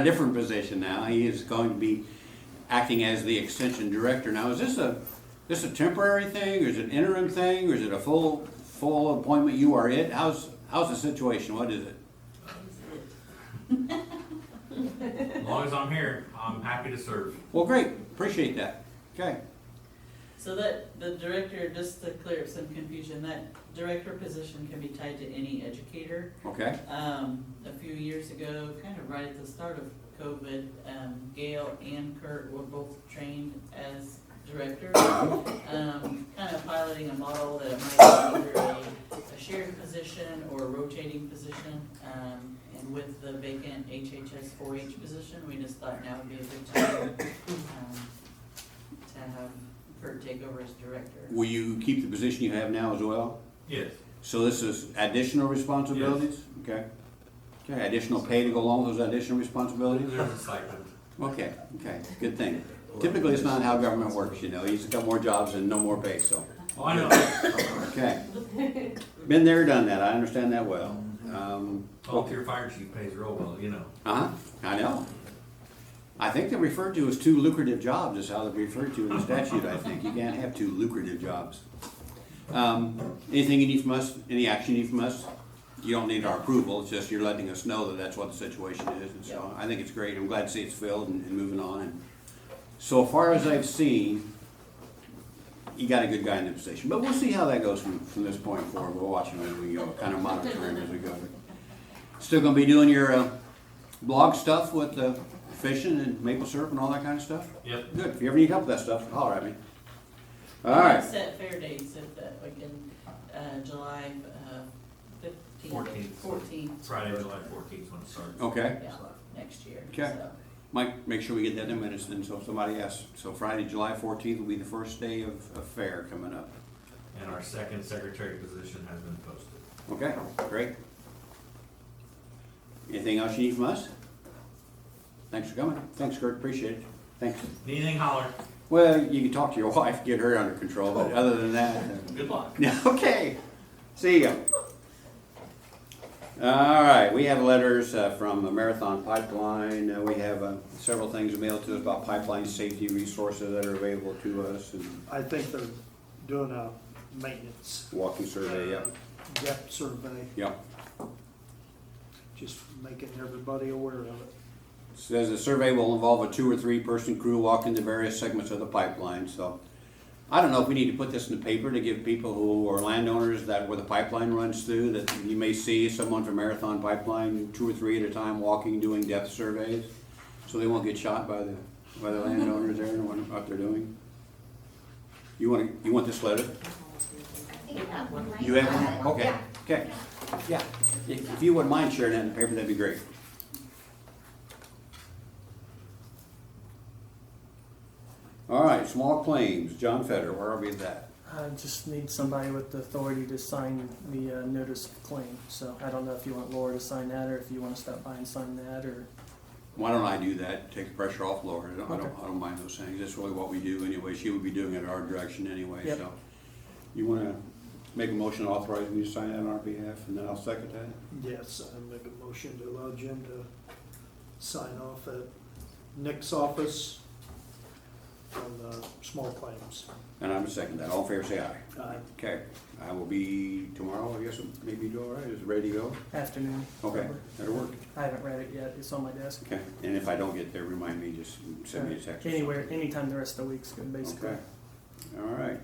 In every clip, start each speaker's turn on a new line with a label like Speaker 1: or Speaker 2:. Speaker 1: a different position now. He is going to be acting as the extension director. Now, is this a, this a temporary thing, or is it interim thing, or is it a full, full appointment? You are it? How's, how's the situation? What is it?
Speaker 2: As long as I'm here, I'm happy to serve.
Speaker 1: Well, great, appreciate that. Okay.
Speaker 3: So that, the director, just to clear up some confusion, that director position can be tied to any educator.
Speaker 1: Okay,
Speaker 3: Um, a few years ago, kind of right at the start of COVID, um, Gail and Kurt were both trained as directors. Um, kind of piloting a model that it might be either a, a shared position or a rotating position. Um, and with the vacant HHS four H position, we just thought now would be a good time, um, to have Kurt take over as director.
Speaker 1: will you keep the position you have now as well?
Speaker 2: Yes,
Speaker 1: So this is additional responsibilities? Okay. Okay, additional pay to go along with those additional responsibilities?
Speaker 2: there's a stipend.
Speaker 1: Okay, okay, good thing. Typically, it's not how government works, you know, you just got more jobs and no more pay, so,
Speaker 2: Oh, I know,
Speaker 1: okay. Been there, done that, I understand that well. Um,
Speaker 2: volunteer fire chief pays real well, you know.
Speaker 1: uh-huh, I know. I think they're referred to as two lucrative jobs is how they're referred to in the statute, I think. You can't have two lucrative jobs. Um, anything you need from us, any action you need from us? You don't need our approval, it's just you're letting us know that that's what the situation is, and so I think it's great. I'm glad to see it's filled and, and moving on. And So far as I've seen, you got a good guy in the position, but we'll see how that goes from, from this point forward. We'll watch him as we go, kind of monitor him as we go. Still gonna be doing your, uh, blog stuff with the fishing and maple syrup and all that kind of stuff?
Speaker 2: Yep.
Speaker 1: Good, if you ever need help with that stuff, holler at me. All
Speaker 3: We
Speaker 1: right,
Speaker 3: Set fair dates if that, like in, uh, July, uh, fifteenth.
Speaker 2: Fourteenth.
Speaker 3: Fourteenth,
Speaker 2: Friday, July fourteenth, when it starts.
Speaker 1: okay.
Speaker 3: yeah, next year.
Speaker 1: Okay.
Speaker 3: so.
Speaker 1: Mike, make sure we get that in minutes then, so if somebody asks. So Friday, July fourteenth will be the first day of, of fair coming up.
Speaker 2: And our second secretary position has been posted.
Speaker 1: Okay, great. Anything else you need from us? Thanks for coming. Thanks, Kurt, appreciate it. Thanks.
Speaker 2: Anything holler,
Speaker 1: Well, you can talk to your wife, get her under control, but other than that, uh,
Speaker 2: good luck.
Speaker 1: Yeah, okay. See ya. All right, we have letters uh, from Marathon Pipeline. Uh, We have uh, several things mailed to us about pipeline safety resources that are available to us and
Speaker 4: I think they're doing a maintenance.
Speaker 1: walking survey, yeah.
Speaker 4: Depth survey,
Speaker 1: Yeah.
Speaker 4: just making everybody aware of it.
Speaker 1: Says the survey will involve a two or three person crew walking the various segments of the pipeline, so. I don't know if we need to put this in the paper to give people who are landowners that where the pipeline runs through, that you may see someone from Marathon Pipeline, two or three at a time, walking, doing depth surveys. So they won't get shot by the, by the landowners there and wonder what they're doing. You wanna, you want this letter?
Speaker 5: I think I have one right
Speaker 1: You have
Speaker 5: now.
Speaker 1: one? Okay,
Speaker 5: Yeah.
Speaker 1: okay. Yeah, if if you wouldn't mind sharing that in the paper, that'd be great. All right, small claims, John Feder, where are we at that?
Speaker 6: I just need somebody with the authority to sign the uh, notice of claim. So I don't know if you want Laura to sign that, or if you want to stop by and sign that, or
Speaker 1: Why don't I do that, take the pressure off Laura, I don't, I don't,
Speaker 6: Okay.
Speaker 1: I don't mind those things, that's really what we do anyway, she would be doing it our direction anyway,
Speaker 6: Yep.
Speaker 1: so. You wanna make a motion to authorize me to sign that on our behalf, and then I'll second that?
Speaker 4: Yes, I make a motion to allow Jim to sign off at Nick's office on the small claims.
Speaker 1: And I'm a second that, all in favor, say aye.
Speaker 4: Aye.
Speaker 1: Okay, I will be tomorrow, I guess, maybe do all right, is it ready to go?
Speaker 6: afternoon.
Speaker 1: Okay,
Speaker 6: whatever.
Speaker 1: that'll work.
Speaker 6: I haven't read it yet. It's on my desk.
Speaker 1: Okay, and if I don't get there, remind me, just send me a text. or something.
Speaker 6: Anywhere, anytime the rest of the week's good, basically.
Speaker 1: Okay, all right.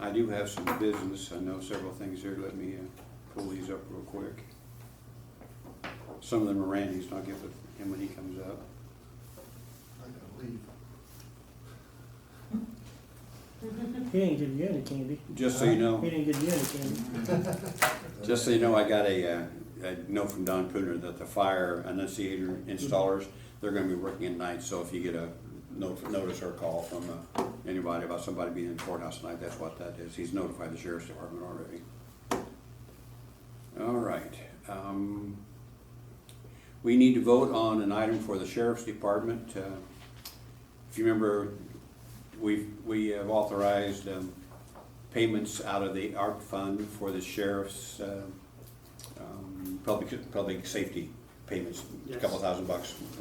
Speaker 1: I do have some business, I know several things here, let me uh, pull these up real quick. Some of them are Randy's, and I'll get with him when he comes up.
Speaker 7: I gotta leave.
Speaker 6: He didn't give you any candy.
Speaker 1: Just so you know.
Speaker 6: He didn't give you any candy.
Speaker 1: Just so you know, I got a, uh, a note from Don Pruner that the fire annunciator installers, they're gonna be working at night, so if you get a note, notice or call from, uh, anybody about somebody being in the courthouse tonight, that's what that is, he's notified the sheriff's department already. All right, um, we need to vote on an item for the sheriff's department, uh, if you remember, we've, we have authorized, um, payments out of the ARP fund for the sheriff's, um, um, public, public safety payments, a
Speaker 4: Yes.
Speaker 1: couple thousand bucks